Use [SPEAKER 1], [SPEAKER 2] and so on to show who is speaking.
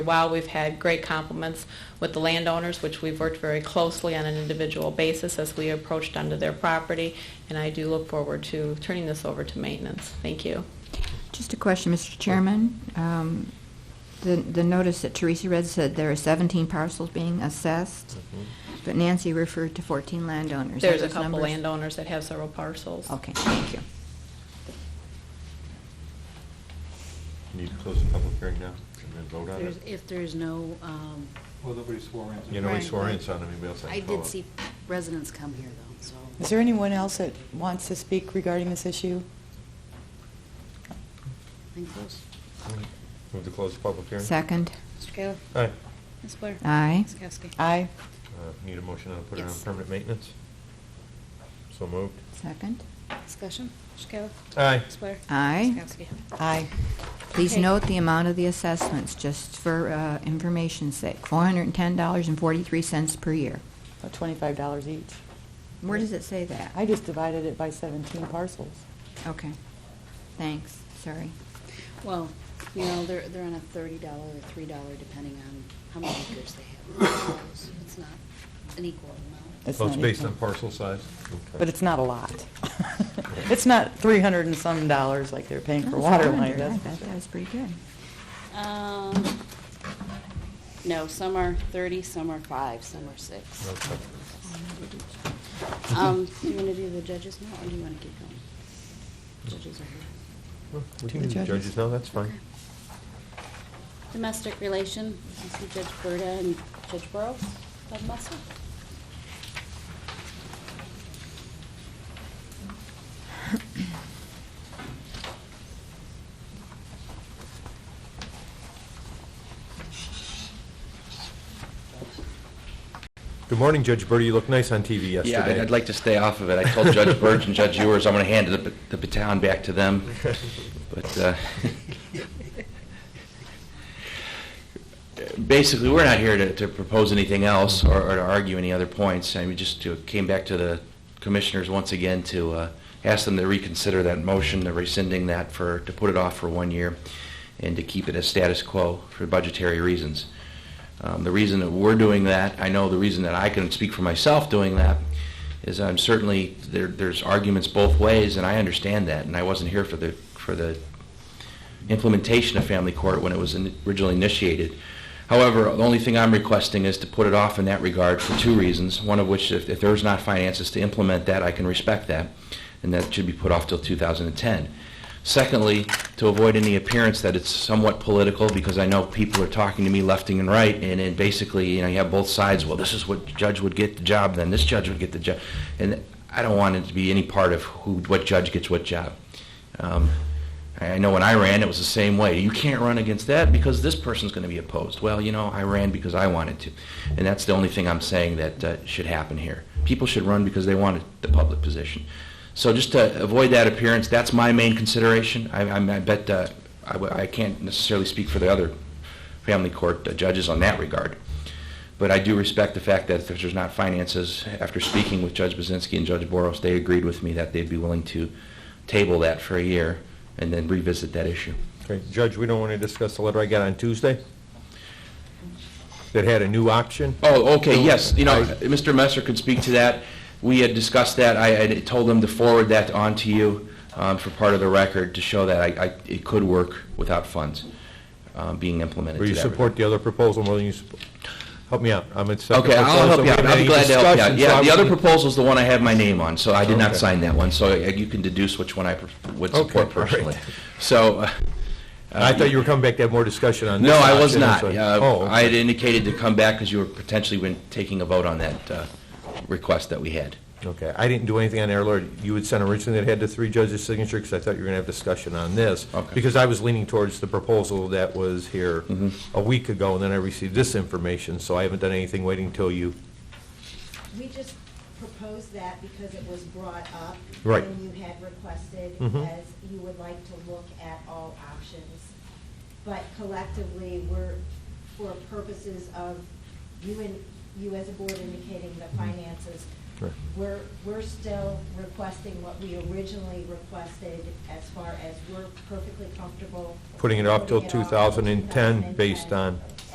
[SPEAKER 1] While we've had great compliments with the landowners, which we've worked very closely on an individual basis as we approached onto their property, and I do look forward to turning this over to maintenance. Thank you.
[SPEAKER 2] Just a question, Mr. Chairman. Um, The the notice that Teresa read said there are 17 parcels being assessed, but Nancy referred to 14 landowners. Are
[SPEAKER 1] There's a
[SPEAKER 2] those
[SPEAKER 1] couple
[SPEAKER 2] numbers-
[SPEAKER 1] landowners that have several parcels.
[SPEAKER 2] Okay, thank you.
[SPEAKER 3] Need to close the public hearing now and then vote on
[SPEAKER 4] There's-
[SPEAKER 3] it?
[SPEAKER 4] If there's no, um,
[SPEAKER 5] Well, nobody swore in.
[SPEAKER 3] You know, we
[SPEAKER 4] Right.
[SPEAKER 3] swore in, so anybody else
[SPEAKER 4] I
[SPEAKER 3] had to follow.
[SPEAKER 4] did see residents come here though, so.
[SPEAKER 6] Is there anyone else that wants to speak regarding this issue?
[SPEAKER 4] I think those-
[SPEAKER 3] Move to close the public hearing?
[SPEAKER 2] Second?
[SPEAKER 4] Mr. Kayla?
[SPEAKER 3] Aye.
[SPEAKER 4] Ms. Blair?
[SPEAKER 2] Aye.
[SPEAKER 4] Ms. Kowski?
[SPEAKER 6] Aye.
[SPEAKER 3] Uh, Need a motion on, put it on
[SPEAKER 4] Yes.
[SPEAKER 3] permanent maintenance? So moved.
[SPEAKER 2] Second?
[SPEAKER 4] Discussion? Mr. Kayla?
[SPEAKER 3] Aye.
[SPEAKER 4] Ms. Blair?
[SPEAKER 2] Aye.
[SPEAKER 4] Ms. Kowski?
[SPEAKER 6] Aye.
[SPEAKER 2] Please
[SPEAKER 4] Okay.
[SPEAKER 2] note the amount of the assessments, just for uh, information's sake, $410.43 per year.
[SPEAKER 6] About twenty-five dollars each.
[SPEAKER 2] Where does it say that?
[SPEAKER 6] I just divided it by seventeen parcels.
[SPEAKER 2] Okay, thanks, sorry.
[SPEAKER 4] Well, you know, they're, they're on a thirty dollar or three dollar depending on how many acres they have. It's not an equal amount.
[SPEAKER 6] It's
[SPEAKER 3] So Oh, it's
[SPEAKER 6] not
[SPEAKER 3] based
[SPEAKER 6] equal.
[SPEAKER 3] on parcel size?
[SPEAKER 6] But it's not a lot. It's not three hundred and some dollars like they're paying for
[SPEAKER 2] Oh,
[SPEAKER 6] water
[SPEAKER 2] 400,
[SPEAKER 6] line,
[SPEAKER 2] I
[SPEAKER 6] that's
[SPEAKER 2] thought that was pretty good.
[SPEAKER 4] Um, no, some are thirty, some are five, some are six.
[SPEAKER 3] Okay.
[SPEAKER 4] Um, do you want to do the judges now, or do you want to keep going? Judges are here.
[SPEAKER 3] Well, We
[SPEAKER 6] To
[SPEAKER 3] can do
[SPEAKER 6] the
[SPEAKER 3] the
[SPEAKER 6] judges.
[SPEAKER 3] judges now, that's fine.
[SPEAKER 4] Domestic relation, I see Judge Berta and Judge Burrows, Judge Musser.
[SPEAKER 3] Good morning, Judge Birdie. You look nice on TV yesterday.
[SPEAKER 7] Yeah, I'd- I'd like to stay off of it. I told Judge Burge and Judge Ewers I'm going to hand the bat- the baton back to them. But uh, basically, we're not here to to propose anything else or or to argue any other points. I mean, just to- came back to the commissioners once again to uh, ask them to reconsider that motion, to rescinding that for, to put it off for one year and to keep it as status quo for budgetary reasons. Um, The reason that we're doing that, I know the reason that I can speak for myself doing that, is I'm certainly, there, there's arguments both ways, and I understand that, and I wasn't here for the, for the implementation of family court when it was in- originally initiated. However, the only thing I'm requesting is to put it off in that regard for two reasons, one of which, if, if there's not finances to implement that, I can respect that, and that should be put off till 2010. Secondly, to avoid any appearance that it's somewhat political, because I know people are talking to me left and right, and then basically, you know, you have both sides, well, this is what judge would get the job, then this judge would get the job. And I don't want it to be any part of who, what judge gets what job. Um, I I know when I ran, it was the same way. You can't run against that because this person's going to be opposed. Well, you know, I ran because I wanted to. And that's the only thing I'm saying that uh, should happen here. People should run because they wanted the public position. So just to avoid that appearance, that's my main consideration. I, I'm- I bet, uh, I w- I can't necessarily speak for the other family court uh, judges on that regard. But I do respect the fact that if there's not finances, after speaking with Judge Buzinski and Judge Boros, they agreed with me that they'd be willing to table that for a year and then revisit that issue.
[SPEAKER 3] Okay, Judge, we don't want to discuss the letter I got on Tuesday that had a new auction?
[SPEAKER 7] Oh, okay, yes, you know,
[SPEAKER 3] I-
[SPEAKER 7] Mr. Messer could speak to that. We had discussed that, I had told them to forward that on to you um, for part of the record to show that I, I- it could work without funds um, being implemented.
[SPEAKER 3] Or you
[SPEAKER 7] to that
[SPEAKER 3] support the other proposal more than you, sup- help me out, I'm at second
[SPEAKER 7] Okay, I'll
[SPEAKER 3] proposal.
[SPEAKER 7] help you out.
[SPEAKER 3] We haven't
[SPEAKER 7] I'll be
[SPEAKER 3] had
[SPEAKER 7] glad
[SPEAKER 3] any
[SPEAKER 7] to help you out.
[SPEAKER 3] discussion, so
[SPEAKER 7] Yeah,
[SPEAKER 3] I
[SPEAKER 7] the other
[SPEAKER 3] wouldn't-
[SPEAKER 7] proposal's the one I have my name on, so I did not
[SPEAKER 3] Okay.
[SPEAKER 7] sign that one, so uh, you can deduce which one I pr- would
[SPEAKER 3] Okay,
[SPEAKER 7] support
[SPEAKER 3] all right.
[SPEAKER 7] personally. So, uh,
[SPEAKER 3] I thought you were coming back to have more discussion on this.
[SPEAKER 7] no, I was
[SPEAKER 3] auction,
[SPEAKER 7] not.
[SPEAKER 3] so-
[SPEAKER 7] Uh,
[SPEAKER 3] Oh,
[SPEAKER 7] I had
[SPEAKER 3] okay.
[SPEAKER 7] indicated to come back because you were potentially been taking a vote on that uh, request that we had.
[SPEAKER 3] Okay, I didn't do anything on air, Lord. You had sent originally that had the three judges' signature, because I thought you were going to have discussion on this.
[SPEAKER 7] Okay.
[SPEAKER 3] Because I was leaning towards the proposal that was here
[SPEAKER 7] Mhm.
[SPEAKER 3] a week ago, and then I received this information, so I haven't done anything waiting till you.
[SPEAKER 8] We just proposed that because it was brought up.
[SPEAKER 3] Right.
[SPEAKER 8] When you had requested,
[SPEAKER 3] Mhm.
[SPEAKER 8] as you would like to look at all options. But collectively, we're, for purposes of you and, you as a board indicating the finances,
[SPEAKER 3] Mm-hmm. Right.
[SPEAKER 8] we're, we're still requesting what we originally requested as far as we're perfectly comfortable.
[SPEAKER 3] Putting it off till
[SPEAKER 8] putting it off
[SPEAKER 3] 2010 based
[SPEAKER 8] 2010.
[SPEAKER 3] on